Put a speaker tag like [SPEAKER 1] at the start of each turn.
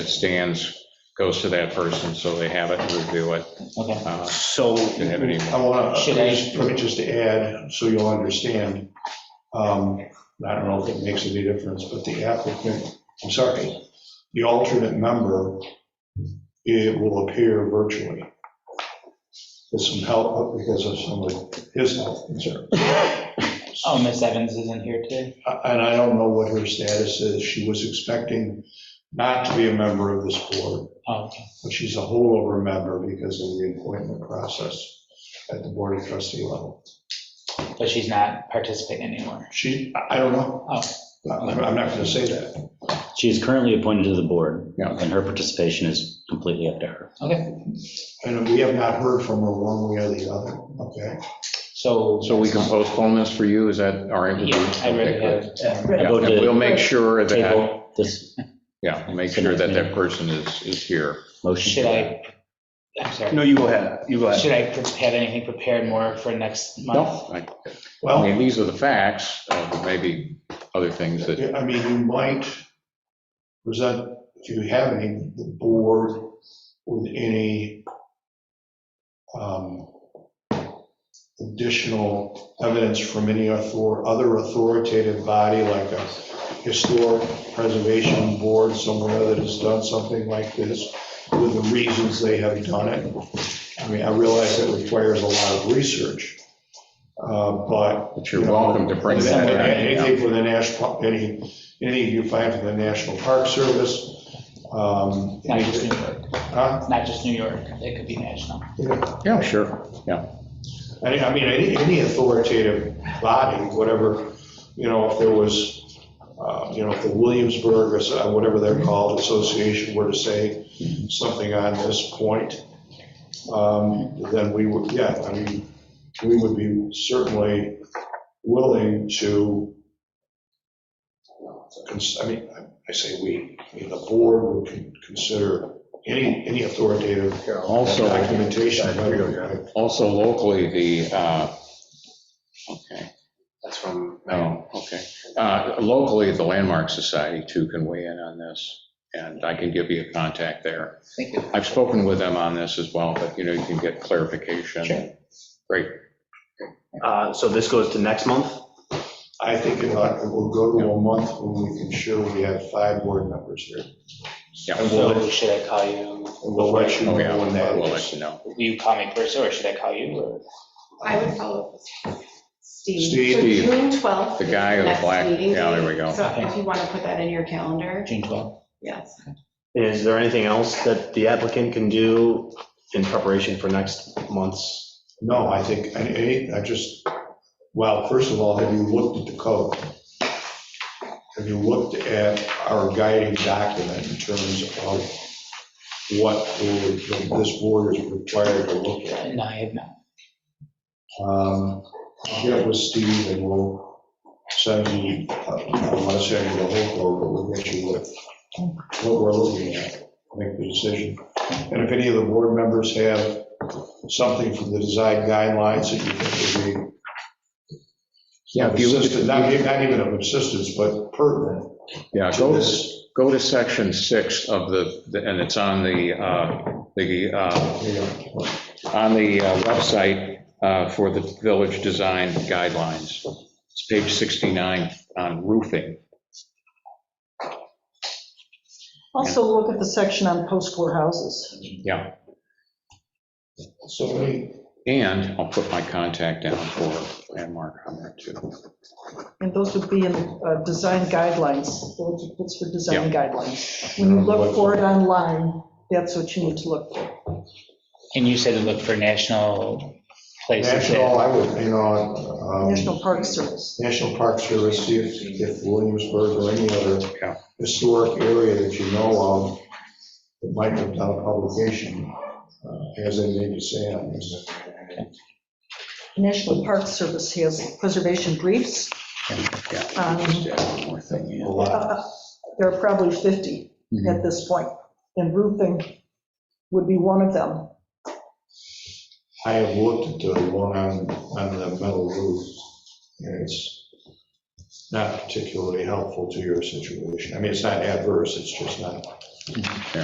[SPEAKER 1] it stands goes to that person, so they have it, review it.
[SPEAKER 2] Okay.
[SPEAKER 1] Uh,
[SPEAKER 2] So,
[SPEAKER 1] Didn't have any
[SPEAKER 3] I want to,
[SPEAKER 2] Should I-
[SPEAKER 3] let me just add, so you'll understand. um, I don't know if it makes any difference, but the applicant, I'm sorry, the alternate member, it will appear virtually. With some help, because of some of his health concern.
[SPEAKER 2] oh, Miss Evans isn't here today?
[SPEAKER 3] And I don't know what her status is. She was expecting not to be a member of this board,
[SPEAKER 2] Oh, okay.
[SPEAKER 3] but she's a holdover member because of the appointment process at the board of trustee level.
[SPEAKER 2] But she's not participating anymore.
[SPEAKER 3] She, I I don't know.
[SPEAKER 2] Oh.
[SPEAKER 3] I'm I'm not going to say that.
[SPEAKER 4] She is currently appointed to the board,
[SPEAKER 1] Yeah.
[SPEAKER 4] and her participation is completely up to her.
[SPEAKER 2] Okay,
[SPEAKER 3] And we have not heard from her one way or the other, okay?
[SPEAKER 2] so.
[SPEAKER 1] So we can postpone this for you, is that our
[SPEAKER 2] Yeah,
[SPEAKER 1] intention?
[SPEAKER 2] I uh, read it. yeah.
[SPEAKER 1] Yeah, and we'll make sure that,
[SPEAKER 4] Table this
[SPEAKER 1] yeah, we'll make sure that that person is, is here.
[SPEAKER 4] motion.
[SPEAKER 2] Should I, I'm sorry,
[SPEAKER 5] No, you go ahead, you go ahead.
[SPEAKER 2] should I pre- have anything prepared more for next month?
[SPEAKER 1] No, I I
[SPEAKER 3] Well,
[SPEAKER 1] mean, these are the facts, uh, but maybe other things that,
[SPEAKER 3] I mean, you might present, if you have any, the board with any um, additional evidence from any author, other authoritative body, like a historic preservation board somewhere that has done something like this, with the reasons they have done it. I mean, I realize that requires a lot of research, uh, but
[SPEAKER 1] that you're welcome to bring that
[SPEAKER 3] Anything-
[SPEAKER 1] in.
[SPEAKER 3] Anything from the national, any, anything you find from the National Park Service. um,
[SPEAKER 2] Not just New York,
[SPEAKER 3] huh?
[SPEAKER 2] not just New York, it could be national.
[SPEAKER 1] Yeah, sure.
[SPEAKER 3] I I mean, any, any authoritative body, whatever, you know, if there was, uh, you know, if the Williamsburg or so- uh, whatever they're called, association were to say something on this point, um, then we would, yeah, I mean, we would be certainly willing to, cons- I mean, I- I say we, I mean, the board would con- consider any, any authoritative
[SPEAKER 1] Also.
[SPEAKER 3] documentation.
[SPEAKER 1] Also locally, the, uh, okay,
[SPEAKER 6] That's from,
[SPEAKER 1] oh, okay. Uh, Locally, the Landmark Society too can weigh in on this, and I can give you a contact there.
[SPEAKER 2] Thank you.
[SPEAKER 1] I've spoken with them on this as well, but you know, you can get clarification. Great,
[SPEAKER 5] Uh, So this goes to next month?
[SPEAKER 3] I think it ought- it will go to a month when we can show we have five board members here.
[SPEAKER 1] yeah,
[SPEAKER 3] And we'll,
[SPEAKER 2] So should I call you,
[SPEAKER 3] and we'll let you know
[SPEAKER 1] oh yeah,
[SPEAKER 3] when that
[SPEAKER 1] we'll let
[SPEAKER 3] is.
[SPEAKER 1] you know.
[SPEAKER 2] will you call me first, or should I call you, or?
[SPEAKER 7] I would follow up with Steve.
[SPEAKER 3] Steve.
[SPEAKER 7] So June 12th.
[SPEAKER 1] The guy in
[SPEAKER 7] is
[SPEAKER 1] the
[SPEAKER 7] next
[SPEAKER 1] black,
[SPEAKER 7] meeting
[SPEAKER 1] yeah, there
[SPEAKER 7] date.
[SPEAKER 1] we go.
[SPEAKER 7] So if you want to put that in your calendar,
[SPEAKER 2] June 12th.
[SPEAKER 7] yes.
[SPEAKER 5] Is there anything else that the applicant can do in preparation for next month's?
[SPEAKER 3] No, I think, I- I, I just, well, first of all, have you looked at the code? Have you looked at our guiding document in terms of what we would- this board is required to look at?
[SPEAKER 2] No, I have not.
[SPEAKER 3] Um, I'll Get with Steve and we'll send you, uh, I want to send you the whole quote, but we'll get you what, what we're looking at, make the decision. And if any of the board members have something from the design guidelines that you think would be
[SPEAKER 1] Yeah,
[SPEAKER 3] of
[SPEAKER 1] if you look at
[SPEAKER 3] assistance, not
[SPEAKER 1] the-
[SPEAKER 3] not even of assistance, but pertinent
[SPEAKER 1] yeah,
[SPEAKER 3] to
[SPEAKER 1] go to
[SPEAKER 3] this,
[SPEAKER 1] Go to section six of the, and it's on the, uh, the, uh,
[SPEAKER 3] you know,
[SPEAKER 1] on the uh, website uh, for the village design guidelines. It's page 69 on roofing.
[SPEAKER 8] Also, look at the section on post-war houses.
[SPEAKER 1] Yeah,
[SPEAKER 3] so many,
[SPEAKER 1] and I'll put my contact down for landmark on there too.
[SPEAKER 8] And those would be in uh, design guidelines. Those- That's for design guidelines. When you
[SPEAKER 3] What-
[SPEAKER 8] look for it online, that's what you need to look for.
[SPEAKER 2] And you said to look for national places
[SPEAKER 3] national,
[SPEAKER 2] that,
[SPEAKER 3] I would, you know, um,
[SPEAKER 8] National Park Service.
[SPEAKER 3] National Park Service, see if if Williamsburg or any
[SPEAKER 1] Yeah.
[SPEAKER 3] other historic area that you know of that might have done a publication, uh, has anything to say on this.
[SPEAKER 8] National Park Service has preservation briefs. Um,
[SPEAKER 3] A lot.
[SPEAKER 8] uh, There are probably 50 at this point, and roofing would be one of them.
[SPEAKER 3] I have looked at the one on, on the metal roof, and it's not particularly helpful to your situation. I mean, it's not adverse, it's just not